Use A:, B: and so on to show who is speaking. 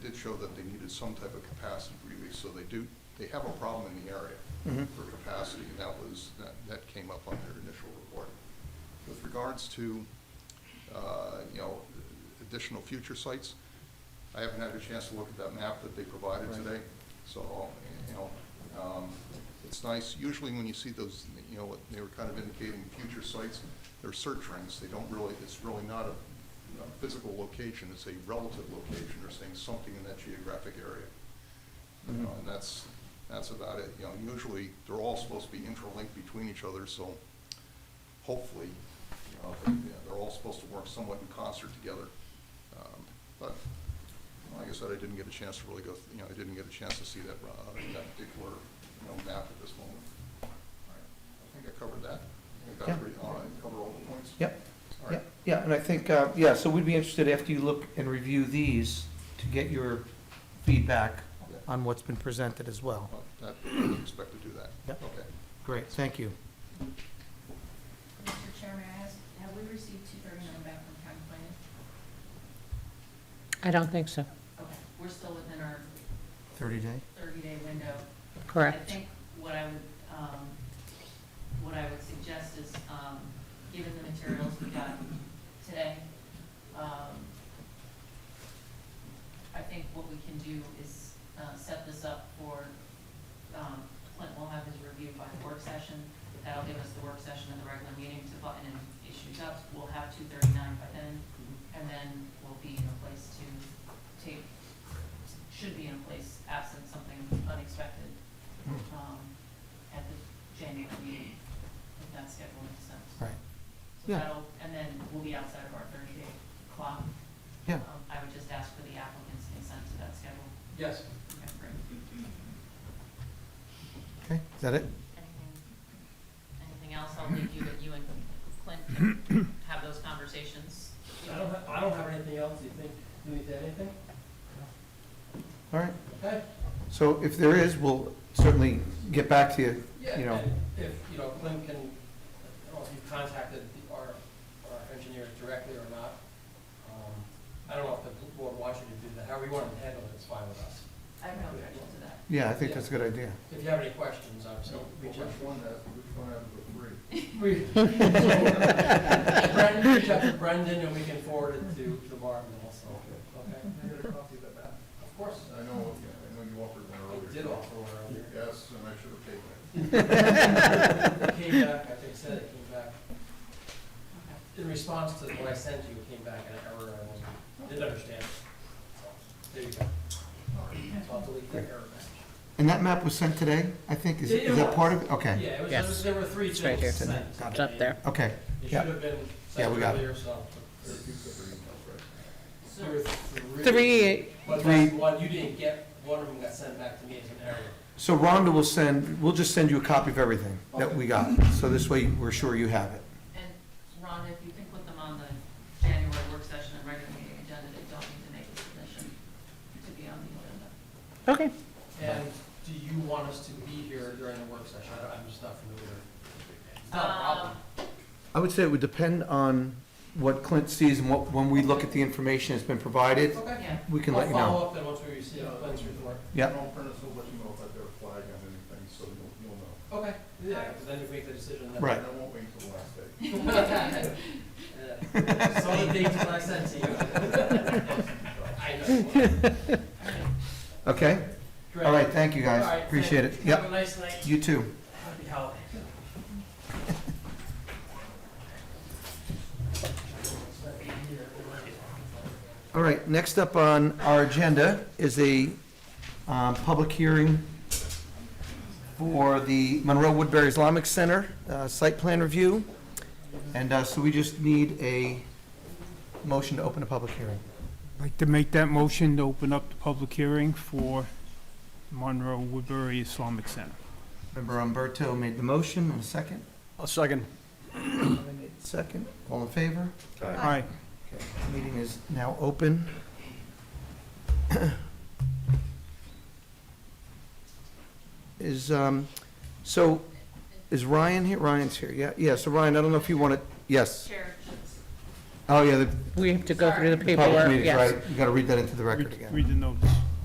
A: show that they needed some type of capacity release, so they do, they have a problem in the area
B: Mhm.
A: for capacity, and that was, that, that came up on their initial report. With regards to, uh, you know, additional future sites, I haven't had a chance to look at that map that they provided
B: Right.
A: today, so, you know, um, it's nice, usually when you see those, you know, what they were kind of indicating future sites, they're search rings, they don't really, it's really not a, a physical location, it's a relative location, they're saying something in that geographic area. You know,
B: Mhm.
A: and that's, that's about it, you know, usually, they're all supposed to be interlinked between each other, so hopefully, you know, they- yeah, they're all supposed to work somewhat in concert together. Um, But, like I said, I didn't get a chance to really go, th- you know, I didn't get a chance to see that, uh, that particular, you know, map at this moment. All right. I think I covered that. I think that's
B: Yeah.
A: pretty, all right, covered all the points?
B: Yep,
A: All
B: yeah,
A: right.
B: yeah, and I think, uh, yeah, so we'd be interested after you look and review these to get your feedback
A: Yeah.
B: on what's been presented as well.
A: Well, that, I would expect to do that.
B: Yep.
A: Okay.
B: Great, thank you.
C: Mr. Chairman, I ask, have we received two thirty-nine back from county planning?
D: I don't think so.
C: Okay, we're still within our
B: Thirty day?
C: thirty-day window. I
D: Correct.
C: think what I would, um, what I would suggest is, um, given the materials we got today, um, I think what we can do is, uh, set this up for, um, Clint will have his review by the work session. That'll give us the work session and the regular meeting to button in issues up. We'll have two thirty-nine by then, and then we'll be in a place to take, should be in a place absent something unexpected, um, at the January meeting, if that schedule makes sense.
B: Right,
C: So
B: Yeah.
C: that'll, and then we'll be outside of our thirty-day clock.
B: yeah,
C: Um, I would just ask for the applicant's consent to that schedule.
E: Yes.
C: Okay, great.
B: okay, is that it?
C: Anything, anything else? I'll leave you, that you and Clint can have those conversations.
E: I don't, ha- I don't have anything else. Do you think, do you need anything?
B: All right,
E: Okay?
B: so if there is, we'll certainly get back to you,
E: Yeah,
B: you know.
E: and if, you know, Clint can, I don't know if you've contacted the- our, our engineers directly or not. Um, I don't know if the board wants you to do that. However you want to handle it, it's fine with us.
C: I have no objection to that.
B: Yeah, I think that's a good idea.
E: If you have any questions, obviously, reach out.
A: one, which one out of the three?
E: We- so, Brendan, reach out to Brendan and we can forward it to, to Marvin also, okay?
A: I got a copy of that map.
E: Of course.
A: I know, yeah, I know you offered one earlier.
E: I did offer one earlier.
A: Yes, and I should have taken it.
E: It came back, I think said it came back.
C: Okay.
E: In response to what I sent you, it came back an error, I wasn't, didn't understand. So, There you go. So I'll delete that error message.
B: And that map was sent today, I think, is,
E: It- it
B: is that part of
E: was.
B: it? Okay,
E: Yeah, it was,
D: Yes.
E: there was- there were three
D: It's right
E: things
D: here.
E: sent.
B: Got
D: It's up there.
B: okay,
E: It should
B: Yeah.
E: have been
B: Yeah, we
E: sent
B: got it.
E: earlier, so.
A: There are two separate emails, right?
C: So,
E: There were
D: Three,
E: But
B: Three.
E: that's one, you didn't get, one of them got sent back to me as an error.
B: so Rhonda will send, we'll just send you a copy of everything that we got, so this way we're sure you have it.
C: and Rhonda, if you can put them on the January work session and regular meeting agenda, they don't need to make a submission to be on the agenda.
D: Okay.
E: And do you want us to be here during the work session? I- I'm just not familiar. It's not a
D: Um,
E: problem.
B: I would say it would depend on what Clint sees and what, when we look at the information that's been provided,
C: Um,
E: Okay.
C: Yeah,
B: we can let you
E: I'll
B: know.
E: follow up then once we receive the plans report.
B: Yep.
A: Don't print us, we'll let you know if I got a flag on anything, so you'll, you'll know.
E: Okay, yeah, because then you make the decision. then.
B: Right.
A: And I won't wait until the last day.
E: Yeah. Some of the dates that I sent to you. I know.
B: Okay?
E: Great.
B: All right, thank you,
E: All right,
B: guys.
E: thank
B: Appreciate it.
E: you. Have a
B: Yep,
E: nice night.
B: you too.
E: Happy holidays.
B: All right, next up on our agenda is a um, public hearing for the Monroe Woodbury Islamic Center uh, site plan review. And uh, so we just need a motion to open a public hearing.
F: I'd like to make that motion to open up the public hearing for Monroe Woodbury Islamic Center.
B: Member Umberto made the motion, and a second?
G: A second.
B: Second, all in favor?
F: Aye.
B: Meeting is now open. Is, um, so, is Ryan here? Ryan's here, yeah, yeah, so Ryan, I don't know if you want to, yes.
C: Chair, just-
B: Oh, yeah, the
D: We have to go through the
B: public
D: paperwork,
B: meeting,
D: yes.
B: right, you got to read that into the record
F: Read
B: again.
F: read the notice.